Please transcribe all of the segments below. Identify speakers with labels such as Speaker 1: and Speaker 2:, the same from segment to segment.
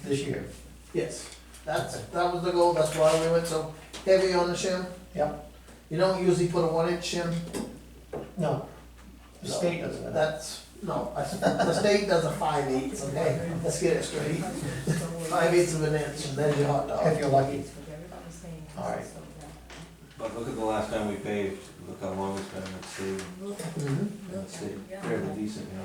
Speaker 1: this year.
Speaker 2: Yes.
Speaker 1: That's, that was the goal, that's why we went so heavy on the shim.
Speaker 2: Yep.
Speaker 1: You don't usually put a one inch shim.
Speaker 2: No. The
Speaker 1: No,
Speaker 2: state doesn't.
Speaker 1: That's, no, I- the state does a five eighths, okay, let's get it straight. Five eighths of an inch, and then your hot
Speaker 2: If
Speaker 1: dog.
Speaker 2: you're lucky.
Speaker 1: All right.
Speaker 3: But look at the last time we paved, look how long it's been, let's see,
Speaker 1: Mhm.
Speaker 3: let's see, fairly decent, you know.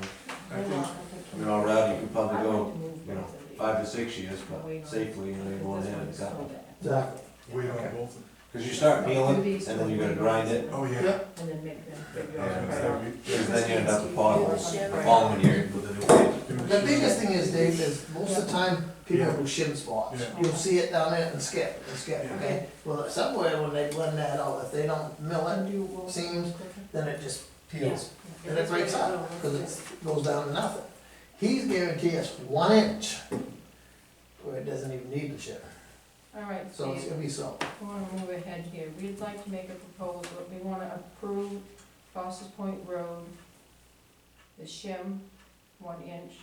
Speaker 3: I think, I mean, all around, you could probably go, you know, five to six years, but safely, you know, you're going in and exactly.
Speaker 1: Exactly.
Speaker 4: Wait on
Speaker 3: Okay.
Speaker 4: both.
Speaker 3: Cause you start peeling, and then you gotta grind it,
Speaker 4: Oh, yeah.
Speaker 1: Yep.
Speaker 5: And then make them figure out.
Speaker 4: Yeah,
Speaker 5: how
Speaker 4: is
Speaker 5: to-
Speaker 4: that we-
Speaker 3: cause then you end up with potholes the following year with a new pavement.
Speaker 1: The biggest thing is, Dave, is most of the time, people
Speaker 4: Yeah.
Speaker 1: do shim spots.
Speaker 4: Yeah.
Speaker 1: You'll see it down there and skip, and skip,
Speaker 4: Yeah.
Speaker 1: okay? Well, somewhere when they blend that out, if they don't mill it,
Speaker 5: Seems.
Speaker 1: seams, then it just
Speaker 2: Peels.
Speaker 1: And it breaks up, cause it goes down to nothing. He's guaranteed us one inch where it doesn't even need the shiver,
Speaker 5: All right,
Speaker 1: so it's
Speaker 5: Steve,
Speaker 1: gonna be so.
Speaker 5: we want to move ahead here. We'd like to make a proposal. We want to approve Foster's Point Road, the shim, one inch,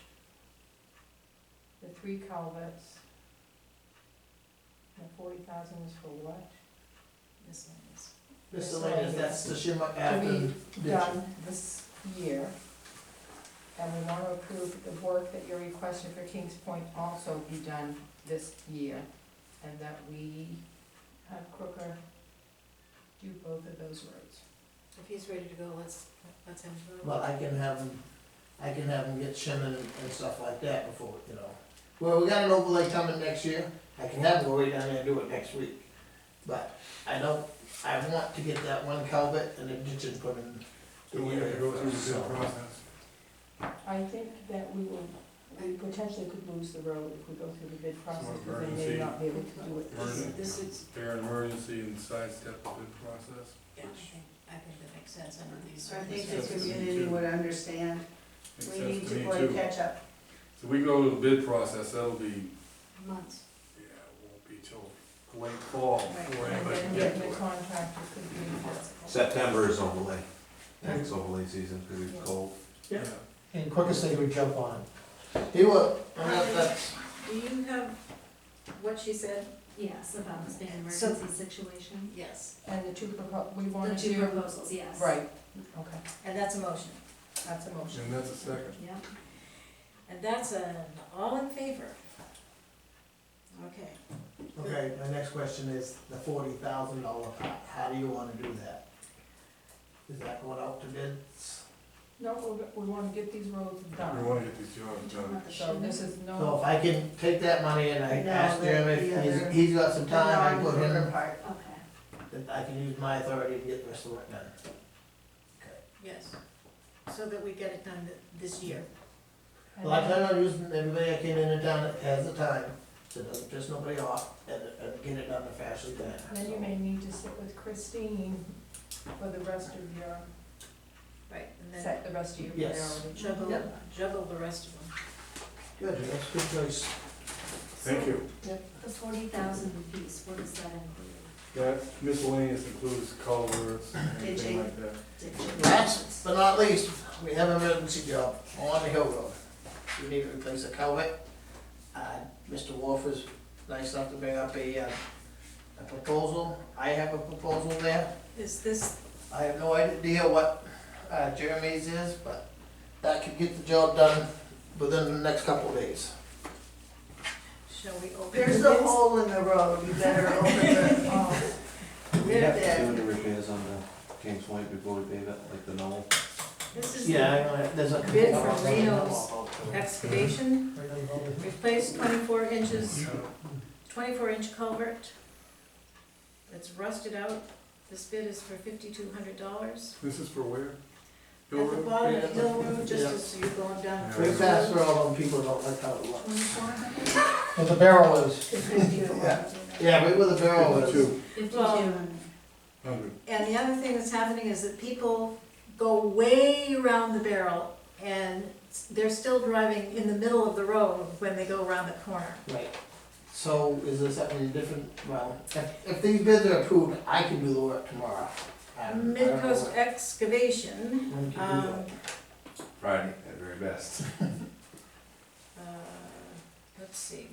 Speaker 5: the three culverts. And forty thousand is for what? This one is.
Speaker 1: Miscellaneous, that's the shimmer
Speaker 5: To
Speaker 1: after
Speaker 5: be
Speaker 1: ditching.
Speaker 5: done this year. And we want to approve the work that you're requesting for Kings Point also be done this year. And that we have Crooker do both of those roads.
Speaker 6: If he's ready to go, let's, let's him go.
Speaker 1: But I can have him, I can have him get shim and, and stuff like that before, you know. Well, we got an overlay coming next year, I can have him go right down there and do it next week. But I don't, I want to get that one culvert and then ditch and put in.
Speaker 4: Do we have to go through the
Speaker 1: So-
Speaker 4: same process?
Speaker 5: I think that we will, we potentially could lose the road if we go through the bid process, because they may not be able to do it.
Speaker 4: Emergency.
Speaker 6: This is,
Speaker 4: They're an emergency and sidestep the bid process.
Speaker 6: yeah, I think, I think that makes sense under these
Speaker 7: I think
Speaker 6: circumstances.
Speaker 7: the community would understand,
Speaker 4: Makes
Speaker 7: we
Speaker 4: sense
Speaker 7: need
Speaker 4: me,
Speaker 7: to play
Speaker 4: too.
Speaker 7: catch up.
Speaker 4: So we go to the bid process, that'll be,
Speaker 6: Months.
Speaker 4: yeah, it won't be till late fall before
Speaker 5: And
Speaker 4: anybody
Speaker 5: then
Speaker 4: can
Speaker 5: the
Speaker 4: get
Speaker 5: the
Speaker 4: to it.
Speaker 5: contractor could be.
Speaker 3: September is overlay, next overlay season, cause it's cold.
Speaker 1: Yeah.
Speaker 4: Yeah.
Speaker 2: And quickest they would jump on.
Speaker 1: He will, and that- that's,
Speaker 7: Do you have what she said?
Speaker 8: Yes, about the state
Speaker 7: So-
Speaker 8: emergency situation.
Speaker 6: Yes,
Speaker 5: And the two Mm-hmm. propo, we
Speaker 8: The
Speaker 5: want to
Speaker 8: two
Speaker 5: do.
Speaker 8: proposals, yes.
Speaker 5: Right, okay,
Speaker 6: and that's a motion.
Speaker 5: that's a motion.
Speaker 4: And that's a second.
Speaker 6: Yeah. And that's an all in favor. Okay.
Speaker 1: okay, my next question is the forty thousand dollar pot, how do you wanna do that? Is that going out to bids?
Speaker 5: No, we, we wanna get these roads
Speaker 4: We
Speaker 5: done,
Speaker 4: wanna get these jobs done.
Speaker 5: so this is
Speaker 1: So
Speaker 5: no,
Speaker 1: if I can take that money and I
Speaker 7: No,
Speaker 1: ask
Speaker 7: the-
Speaker 1: Jeremy,
Speaker 7: the
Speaker 1: if
Speaker 7: other-
Speaker 1: he's, he's got some time, I
Speaker 7: The
Speaker 1: put him,
Speaker 7: non-part.
Speaker 8: Okay.
Speaker 1: that I can use my authority to get the rest of the work done.
Speaker 6: Yes, so that we get it done th- this year.
Speaker 5: and
Speaker 1: Well, I
Speaker 5: then
Speaker 1: plan on using everybody I can in and down that has the time, so it doesn't piss nobody off, and, and get it done the faster than.
Speaker 5: then you may need to sit with Christine for the rest of your,
Speaker 6: Right. And then
Speaker 5: set the rest of your
Speaker 1: Yes.
Speaker 5: priorities.
Speaker 6: juggle,
Speaker 1: Yep.
Speaker 6: juggle the rest of them.
Speaker 1: Good, that's a good choice.
Speaker 4: Thank you.
Speaker 8: The forty thousand piece, what does that include?
Speaker 4: That miscellaneous includes culverts, anything
Speaker 7: Ditching.
Speaker 4: like that.
Speaker 1: Last but not least, we have an emergency job on the Hill Road. We need to replace a culvert. Uh, Mr. Wolf was nice enough to bring up a, uh, a proposal. I have a proposal there.
Speaker 6: Is this,
Speaker 1: I have no idea what uh, Jeremy's is, but that could get the job done within the next couple of days.
Speaker 6: shall we open?
Speaker 7: There's
Speaker 6: the
Speaker 7: a hole in the road, you better open the, oh,
Speaker 3: We
Speaker 7: They're
Speaker 3: have to
Speaker 7: there.
Speaker 3: do the repairs on the Kings Point before we pave it, like the knoll.
Speaker 6: This is
Speaker 1: Yeah, I
Speaker 6: the
Speaker 1: know, there's a.
Speaker 6: Bid from Reno's. excavation,
Speaker 2: Right on the road.
Speaker 6: replace twenty-four inches,
Speaker 4: Yeah.
Speaker 6: twenty-four inch culvert that's rusted out. This bid is for fifty-two hundred dollars.
Speaker 4: This is for where? Hill
Speaker 6: At the
Speaker 4: Road?
Speaker 6: bottom of Hill Road, just
Speaker 1: Yeah.
Speaker 6: as you're going down.
Speaker 4: Yeah.
Speaker 1: Pretty fast for all them people don't like how it looks.
Speaker 2: Where the barrel is.
Speaker 1: Yeah. Yeah, right where the barrel is.
Speaker 4: Fifty-two
Speaker 6: Well,
Speaker 4: hundred.
Speaker 6: And the other thing that's happening is that people go way around the barrel and they're still driving in the middle of the road when they go around the corner.
Speaker 1: Right. So is there something different, well, if, if these bids are approved, I can do the work tomorrow. Um, I don't know
Speaker 6: Midcoast excavation,
Speaker 1: when- when can we do
Speaker 6: um,
Speaker 1: it?
Speaker 3: Friday, at very best.
Speaker 6: uh, let's see,